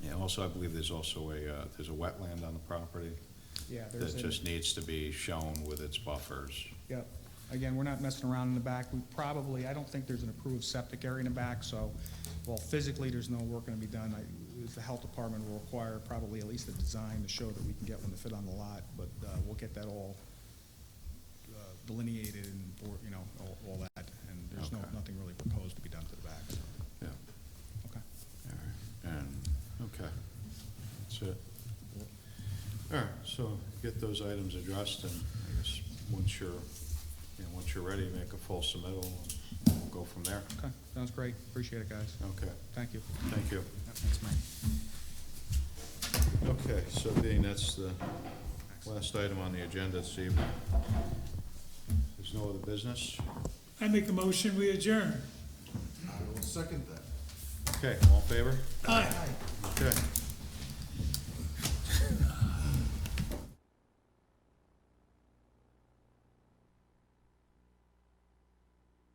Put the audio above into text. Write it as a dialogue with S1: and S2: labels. S1: also, I believe there's also a, uh, there's a wetland on the property
S2: Yeah, there's,
S1: that
S2: a-
S1: just needs to be shown with its buffers.
S2: yep. Again, we're not messing around in the back. We probably, I don't think there's an approved septic area in the back, so, well, physically, there's no work gonna be done. I- The health department will require probably at least a design to show that we can get one to fit on the lot, but uh, we'll get that all uh, delineated and, or, you know, all- all that, and there's no,
S1: Okay.
S2: nothing really proposed to be done to the back, so,
S1: Yeah,
S2: okay.
S1: all right, and, okay, that's it. All right, so get those items addressed, and I guess, once you're, you know, once you're ready, make a full submittal, and we'll go from there.
S2: Okay, sounds great. Appreciate it, guys.
S1: Okay,
S2: Thank you.
S1: thank you.
S2: Thanks, Mike.
S1: Okay, so being that's the last item on the agenda this evening, there's no other business?
S3: I make a motion, we adjourn.
S4: I will second that.
S1: Okay, all in favor?
S3: Aye.
S1: Okay.